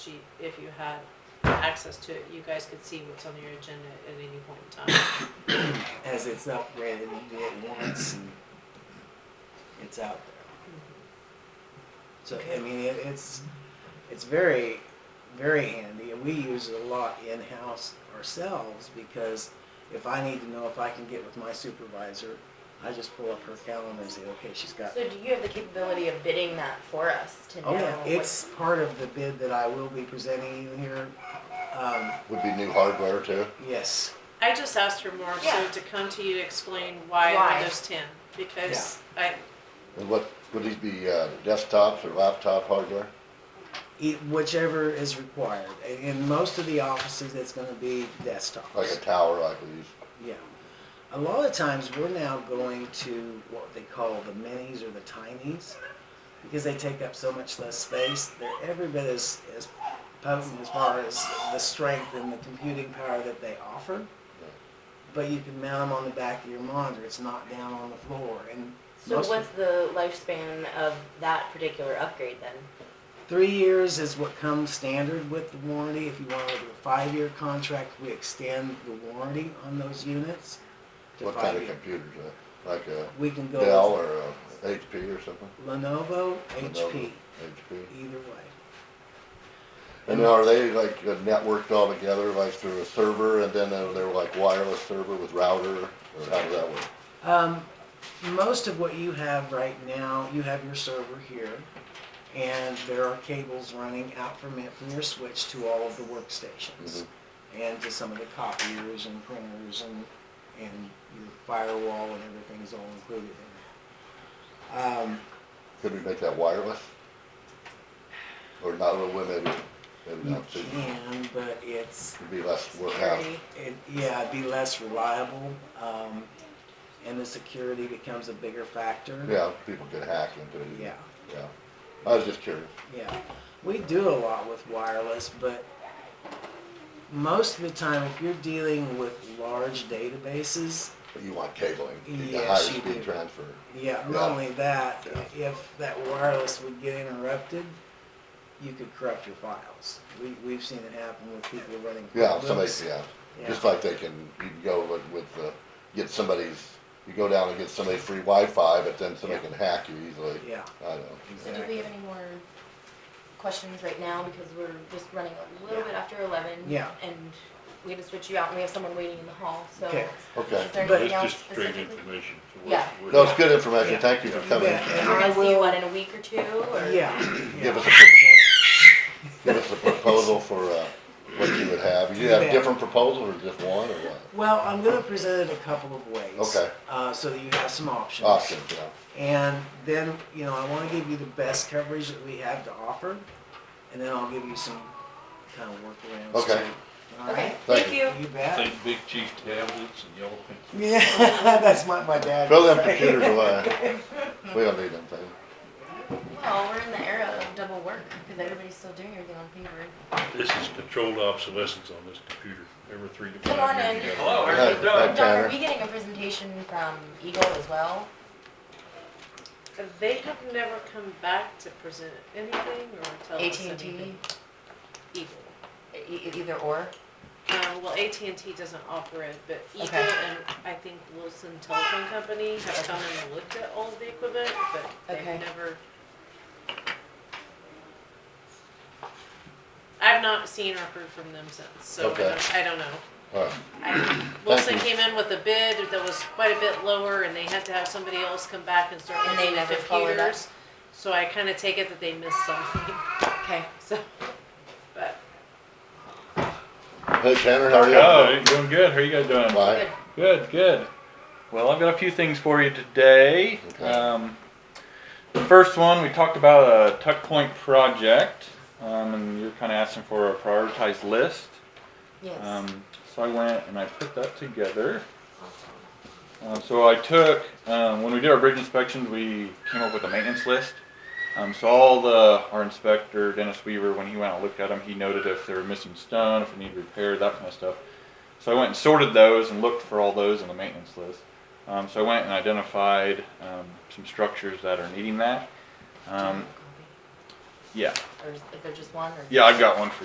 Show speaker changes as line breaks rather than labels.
sheet, if you had access to it, you guys could see what's on your agenda at any point in time.
as it's upgraded, you do it once and it's out there. So I mean, it, it's it's very very handy, and we use it a lot in house ourselves because if I need to know if I can get with my supervisor, I just pull up her calendar and say, okay, she's got.
So do you have the capability of bidding that for us to know?
Oh yeah,
what-
it's part of the bid that I will be presenting you here. Um,
Would be new hardware too.
yes,
I just asked her more so
Yeah.
to come to you to explain why
Why?
Windows ten, because I,
And what, would these be uh, desktops or laptop hardware?
e- whichever is required. In- In most of the offices, it's going to be desktops.
Like a tower like we use?
Yeah. A lot of times we're now going to what they call the minis or the tinies because they take up so much less space. They're every bit as, as potent as far as the strength and the computing power that they offer. But you can mount them on the back of your monitor. It's not down on the floor. And
So
most-
what's the lifespan of that particular upgrade then?
Three years is what comes standard with the warranty. If you want to do a five-year contract, we extend the warranty on those units to
What
five
kind of
years.
computers? uh, Like a
We can go
Dell
with-
or a HP or something?
Lenovo,
Lenovo,
HP,
HP.
either way.
And are they like uh, networked all together, like through a server, and then uh, they're like wireless server with router, or how does that work?
Um, most of what you have right now, you have your server here, and there are cables running out from it from your switch to all of the workstations,
Mhm.
and to some of the copiers and printers and and your firewall and everything is all included in it. Um,
Could we make that wireless? Or not, well, maybe, maybe
you
not, so
can, but it's
it'd be less work out.
Security?
It, yeah, it'd be less reliable, um, and the security becomes a bigger factor.
Yeah, people could hack into it.
Yeah,
Yeah. I was just curious.
yeah. We do a lot with wireless, but most of the time, if you're dealing with large databases,
But you want cabling, you need
Yes,
a higher
you do.
speed transfer.
yeah,
Yeah.
not only that,
Yeah.
if that wireless would get interrupted, you could corrupt your files. We, we've seen it happen with people running.
Yeah, somebody,
QuickBooks.
yeah,
Yeah.
just like they can, you can go with, with, uh, get somebody's, you go down and get somebody's free Wi-Fi, but then somebody
Yeah.
can hack you easily.
Yeah,
I know.
So do we have any more questions right now because we're just running a little bit after eleven?
Yeah.
And we had to switch you out and we have someone waiting in the hall, so.
Okay.
Okay.
Is there
But-
anything else
It's just straight
specifically?
information. so we're-
Yeah.
we're-
No, it's good information,
Yeah.
thank you for
Yeah.
coming.
Yeah.
We're gonna
I
see you
will-
what, in a week or two or?
yeah.
Give
yeah.
us a, give us a proposal for, uh, what you would have, you have
Yeah.
different proposals or just one or what?
Well, I'm gonna present it a couple of ways.
Okay.
Uh, so that you have some options.
Options, yeah.
And then, you know, I wanna give you the best coverage that we have to offer, and then I'll give you some kind of workarounds.
Okay.
too. All
Okay,
right?
Thank
thank
you.
you.
You
I
bet.
think Big Chief tablets and yellow pencils.
Yeah, that's what my dad.
Throw
would
them
say.
computers away, we don't need them things.
Well, we're in the era of double work because everybody's still doing everything on paper.
This is controlled obsolescence on this computer, every three to
Come on
five years.
in.
you gotta-
Hello,
Hi, hi,
everything done.
Don,
Tanner.
are we getting a presentation from Eagle as well?
they have never come back to present anything or tell us
AT&T,
anything. Eagle.
Oh, E- e- either or?
Um, well, AT&T doesn't offer it, but Eagle
Okay.
and I think Wilson Telephone Company have come and looked at all of the equipment, but they've
Okay.
never. I've not seen or heard from them since, so I
Okay.
don't, I don't know.
Alright,
I- Wilson
you.
came in with a bid that was quite a bit lower and they had to have somebody else come back and start
And they
looking at
never followed up.
computers. So I kinda take it that they missed something,
Okay.
so, but,
hey Tanner, how are
Oh, doing good. How are you guys
you?
doing?
Bye.
Good, good. Well, I've got a few things for you today.
Okay.
Um, the first one, we talked about a tuck point project, um, and you're kind of asking for a prioritized list.
Yes.
Um, so I went and I put that together. Um, so I took, um, when we did our bridge inspections, we came up with a maintenance list. Um, so all the, our inspector, Dennis Weaver, when he went out and looked at them, he noted if they were missing stone, if it needed repair, that kind of stuff. So I went and sorted those and looked for all those in the maintenance list. Um, so I went and Um, identified um, some structures that are needing that. Um,
Yeah,
Or is there just one or?
yeah, I've got one for